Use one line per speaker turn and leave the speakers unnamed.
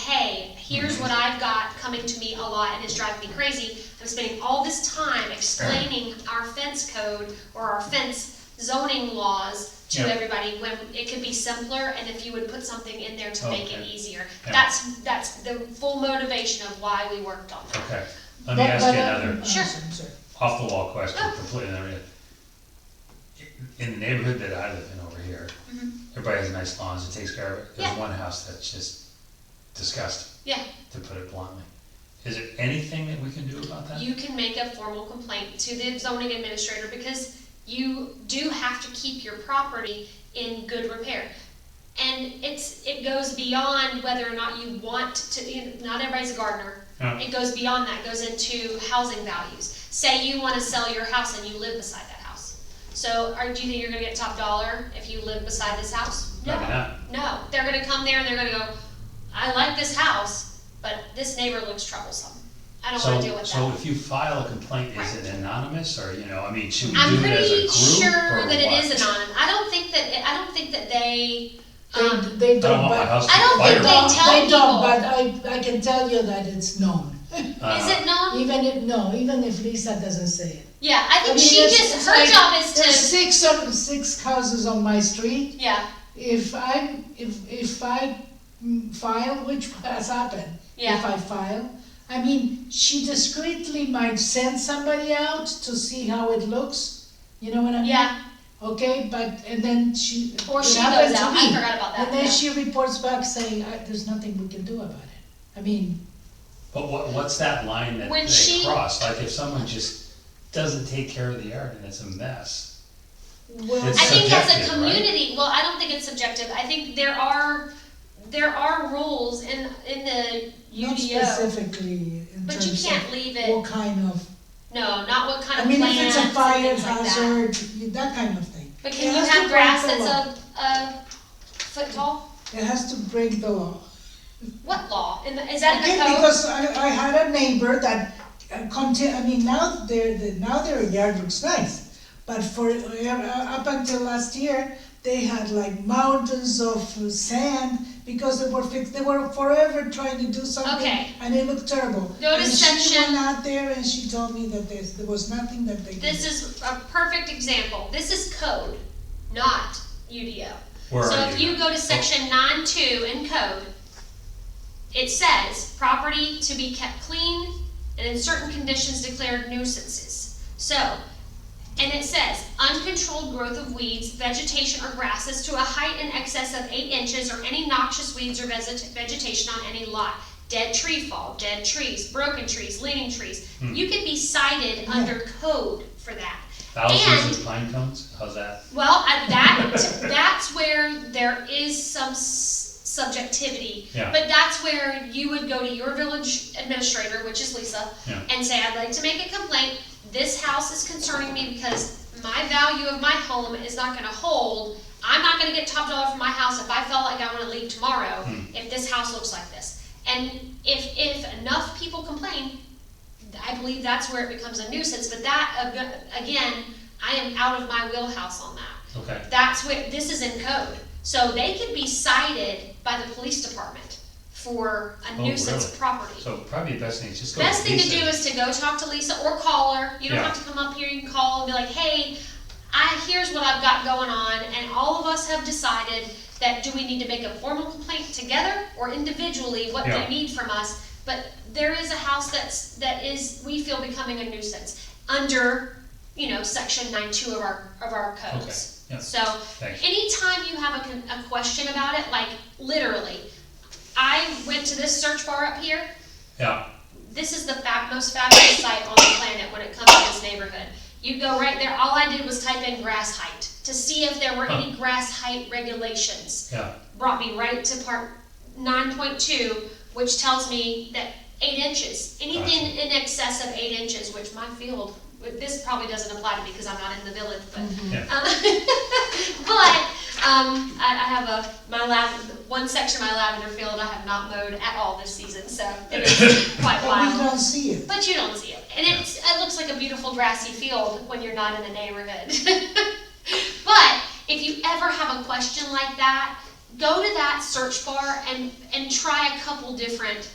here's what I've got coming to me a lot and it's driving me crazy. I'm spending all this time explaining our fence code or our fence zoning laws to
Yeah.
everybody when it could be simpler and if you would put something in there to make it
Okay.
easier.
Yeah.
That's, that's the full motivation of why we worked on that.
Okay, let me
But-
ask you
but, uh,
another
uh,
Sure.
sorry, sorry.
off the wall question,
Oh.
completely, I mean, in the neighborhood that I live in over here,
Mhm.
everybody has nice lawns and takes care of it. There's
Yeah.
one house that's just disgusting,
Yeah,
to put it bluntly. Is there anything that we can do about that?
you can make a formal complaint to the zoning administrator because you do have to keep your property in good repair. And it's, it goes beyond whether or not you want to, you know, not everybody's a gardener.
Yeah.
It goes beyond that, It goes into housing values. Say you wanna sell your house and you live beside that house. So, are, do you think you're gonna get top dollar if you live beside this house? No.
Maybe not.
No, they're gonna come there and they're gonna go, I like this house, but this neighbor looks troublesome. I don't wanna deal with that.
So, so if you file a complaint, is it anonymous, or, you know, I mean, should we
I'm
do it as a
pretty
group,
sure that
or what?
it is anonymous. I don't think that, it- I don't think that they, um,
They, they
I don't
don't,
want my
but.
house
I don't
to
think
fire.
they
don't-
tell
They
people. Um,
don't, but I, I can tell you that it's known.
Uh,
is it known?
Even if, no, even if Lisa doesn't say it.
Yeah, I think
mean,
she
it's-
just,
it's
her
like,
job is
There's
to,
six, or- six houses on my street.
yeah,
If I, if, if I mm, file, which has happened. If
yeah,
I file, I mean, she discreetly might send somebody out to see how it looks. You know what I mean?
yeah,
Okay, but, and then she, it
or she goes
happened to
out, I
me.
forgot about that,
And then
yeah.
she reports back saying, "I- there's nothing we can do about it. I mean,
But what, what's that line that
When
they
she-
cross? Like, if someone just doesn't take care of the yard and it's a mess,
well,
It's
I think as a
subjective, right?
community, well, I don't think it's subjective, I think there are, there are rules in, in the UDO,
not specifically in
but you
terms of
can't leave it,
what kind of,
no, not what kind
I
of
mean,
plants
if it's a
and
fire
things like that.
hazard, you- that kind of thing.
But
It
can you
has to
have grass
break the
that's a, a foot tall?
It has to break the law.
What law? In the- Is that in
Okay,
the code?
Because I, I had a neighbor that uh, conti, I mean, now their, the- now their yard looks nice. But for, uh, up until last year, they had like mountains of sand because they were fixed, they were forever trying to do something.
Okay.
And it looked terrible.
Notice
And she
section-
went out there and she told me that there's, there was nothing that they could.
This is a perfect example. This is code, not UDO.
Where
so
are
if
you? Oh.
you go to section nine two in code, it says property to be kept clean and in certain conditions declared nuisances. So, and it says uncontrolled growth of weeds, vegetation, or grasses to a height in excess of eight inches, or any noxious weeds or veget- vegetation on any lot. Dead tree fall, dead trees, broken trees, leaning trees.
Hmm.
You can be cited under code for that.
Thousands of pine cones, how's that?
Well, at that, that's where there is some s- subjectivity.
Yeah.
But that's where you would go to your village administrator, which is Lisa,
Yeah.
and say, I'd like to make a complaint. This house is concerning me because my value of my home is not gonna hold. I'm not gonna get top dollar for my house if I felt like I wanna leave tomorrow,
Hmm.
if this house looks like this. And if, if enough people complain, I believe that's where it becomes a nuisance, but that, ag- again, I am out of my wheelhouse on that.
Okay,
That's where, this is in code, so they could be cited by the police department for a
Oh,
nuisance
really?
property.
so probably the best thing is just go.
Best thing to
Lisa.
do is to go talk to Lisa or call her, you don't
Yeah.
have to come up here, you can call and be like, hey, I, here's what I've got going on, and all of us have decided that do we need to make a formal complaint together or individually, what
Yeah.
they need from us, but there is a house that's, that is, we feel becoming a nuisance, under, you know, section nine two of our, of our
Okay,
codes.
yeah,
So,
thanks.
anytime you have a, con- a question about it, like literally, I went to this search bar up here.
Yeah,
This is the fab, most fabulous site on the planet when it comes to this neighborhood. You go right there. All I did was type in grass height to see if there were any grass height regulations.
yeah,
Brought me right to part nine point two, which tells me that eight inches, anything in excess of eight inches, which my field, this probably doesn't apply to me because I'm not in the village, but
Mm-hmm.
yeah,
um, but um, I, I have a my lavender, one section of my lavender field I have not mowed at all this season, so it is quite
But we
wild.
don't see it.
But you don't see it, and it's it looks like a beautiful grassy field when you're not in the neighborhood. but if you ever have a question like that, go to that search bar and and try a couple different